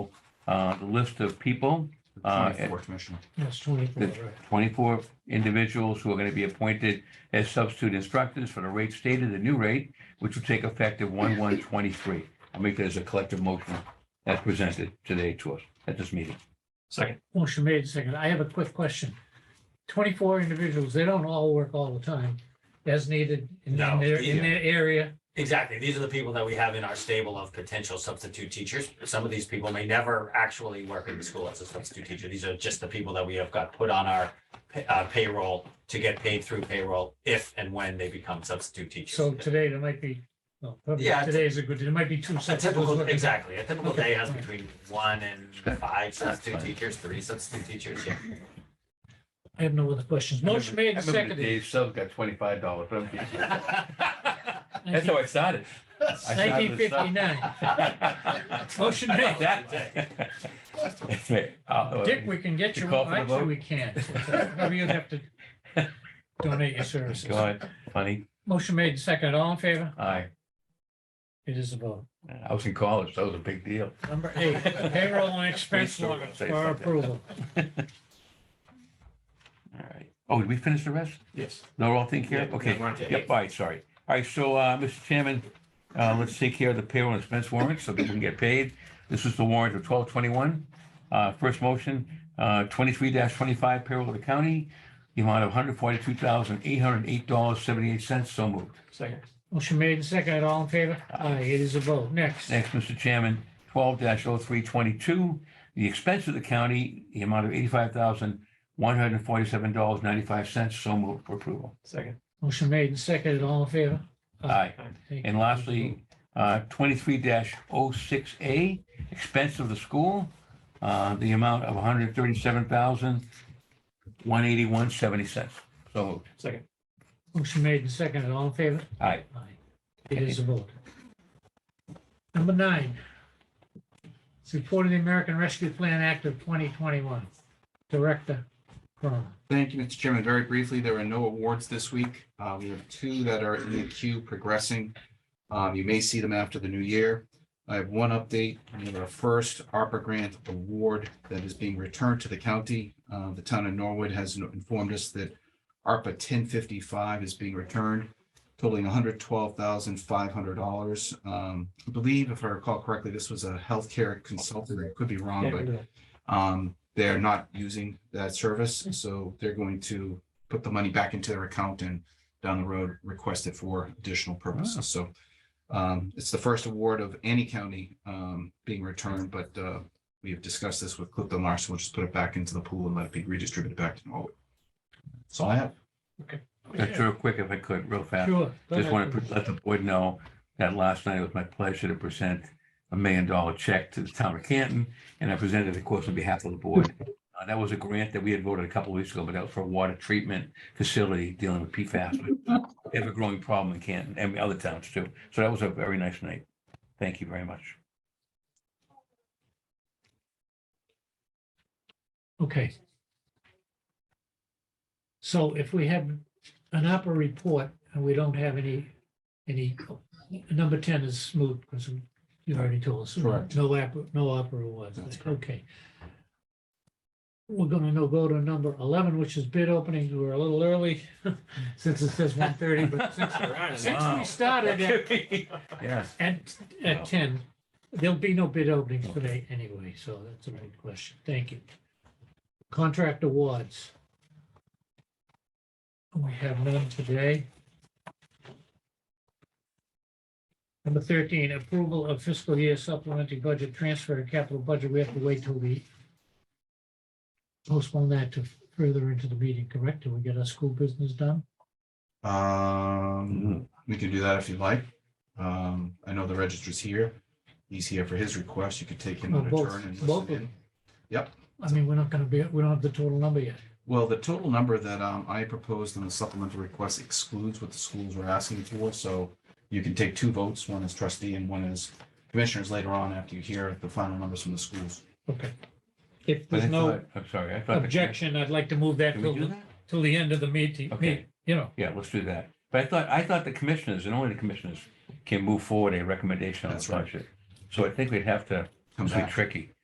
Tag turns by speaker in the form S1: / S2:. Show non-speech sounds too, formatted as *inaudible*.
S1: uh, the list of people, uh,
S2: Twenty-four, Commissioner.
S3: Yes, twenty-four,
S1: the
S3: right.
S1: twenty-four individuals who are going to be appointed as substitute instructors for the rate stated, the new rate, which will take effect at one one twenty-three. I'll make that as a collective motion as presented today to us at this meeting.
S4: Second,
S3: Motion Oh, made second. I have a quick question. Twenty-four individuals, they don't all work all the time as needed in
S4: No,
S3: their, in their area.
S4: exactly. These are the people that we have in our stable of potential substitute teachers. Some of these people may never actually work in the school as a substitute teacher. These are just the people that we have got put on our pay- uh, payroll to get paid through payroll if and when they become substitute teachers.
S3: So today there might be, well, probably
S4: Yeah.
S3: today is a good, there might be two
S4: A
S3: sets of those
S4: typical,
S3: working.
S4: exactly, a typical
S3: Okay.
S4: day has between one and five substitute
S1: fine.
S4: teachers, three substitute teachers, *laughs* yeah.
S3: *laughs* I have no other questions. Motion made and seconded.
S1: Dave Sub got twenty-five dollars.
S3: *laughs*
S1: That's how
S3: Nineteen
S1: I started.
S3: fifty-nine. *laughs*
S1: *laughs*
S3: Motion made. Dick, we can get
S1: Uh, You
S3: you,
S1: call for the
S3: actually,
S1: vote?
S3: we can't. uh, Maybe you'd have to
S1: *laughs*
S3: donate your services.
S1: God, funny,
S3: Motion made second. All in favor?
S1: I,
S3: It is a vote.
S1: I was in college, that was a big deal.
S3: Number eight,
S1: *laughs*
S3: payroll and expense
S1: Please, sir,
S3: warrants
S1: say
S3: for
S1: something.
S3: approval.
S1: All right. Oh, did we finish the rest?
S4: Yes.
S1: No, all think here?
S4: Yeah,
S1: Okay.
S4: we're on to
S1: Yep, all right, sorry. All right, so, uh, Mr. Chairman, uh, let's take care of the payroll and expense warrants so people can get paid. This is the warrant of twelve twenty-one. Uh, first motion, uh, twenty-three twenty-five payroll of the county, the amount of one hundred forty-two thousand, eight hundred eight dollars, seventy-eight cents. So moved.
S4: Second.
S3: Motion made and second. All in favor? Aye, it is a vote. Next,
S1: Next, Mr. Chairman, twelve 322 the expense of the county, the amount of eighty-five thousand, one hundred forty-seven dollars, ninety-five cents. So moved for approval.
S4: Second.
S3: motion made and second. All in favor?
S1: Aye.
S3: Thank
S1: And
S3: you.
S1: lastly, uh, twenty-three 6 A, expense of the school, uh, the amount of one hundred thirty-seven thousand, one eighty-one, seventy cents. So moved.
S4: Second.
S3: Motion made and second. All in favor?
S1: Aye.
S3: Aye, it is a vote. Number nine. It's report of the American Rescue Plan Act of twenty twenty-one. Director Cronin.
S2: Thank you, Mr. Chairman. Very briefly, there are no awards this week. Uh, we have two that are in the queue progressing. Um, you may see them after the new year. I have one update. We have our first ARPA grant award that is being returned to the county. Uh, the town of Norwood has informed us that ARPA ten fifty-five is being returned totaling hundred twelve thousand five hundred dollars. Um, I believe if I recall correctly, this was a healthcare consultant. I could be wrong, but um, they're not using that service, so they're going to put the money back into their account and down the road request it for additional purposes. So um, it's the first award of any county um, being returned, but uh, we have discussed this with Clifton Larson. We'll just put it back into the pool and let it be redistributed back to Norwood. That's all I have.
S1: That's real quick if I could, real fast.
S3: Sure. go
S1: Just
S3: ahead.
S1: want to let the board know that last night it was my pleasure to present a million dollar check to the town of Canton. And I presented, of course, on behalf of the board. Uh, That was a grant that we had voted a couple of weeks ago, but that was for a water treatment facility dealing with PFAS. which is Ever growing problem in Canton and other towns too. So that was a very nice night. Thank you very much.
S3: Okay. So if we have an opera report and we don't have any, any, number ten is smooth because you already told us.
S2: Correct.
S3: No opera, no opera was,
S2: That's correct.
S3: okay. We're gonna now go to number eleven, which is bid openings. We're a little early *laughs* since it says one thirty, but since, since
S1: Wow.
S3: we started at,
S1: Yes.
S3: at,
S1: Wow.
S3: at ten, there'll be no bid openings today anyway, so that's a good question. Thank you. Contract awards. We have none today. Number thirteen, approval of fiscal year supplementary budget transfer and capital budget. We have to wait till we postpone that to further into the meeting, correct? Till we get our school business done?
S2: Um,
S3: Mm-hmm.
S2: We can do that if you'd like. Um, I know the registrar's here. He's here for his request. You could take him
S3: Well,
S2: on a
S3: Oh, both-
S2: turn and
S3: both of
S2: listen in.
S3: them.
S2: Yep.
S3: I mean, we're not gonna be, we don't have the total number yet.
S2: Well, the total number that um, I proposed in the supplemental request excludes what the schools were asking for, so you can take two votes, one as trustee and one as commissioners later on after you hear the final numbers from the schools.
S3: Okay. If
S2: But I
S3: there's no
S2: thought-
S1: I'm sorry. I thought. the-
S3: objection, I'd like to move that
S1: Can we
S3: till,
S1: do
S3: the-
S1: that?
S3: till the end of the meeting.
S1: Okay.
S3: You know,
S1: Yeah, let's do that. But I thought, I thought the commissioners and only the commissioners can move forward a recommendation on the
S2: That's right.
S1: budget. So I think we'd have to,
S2: Come
S1: It's be
S2: back.
S1: tricky.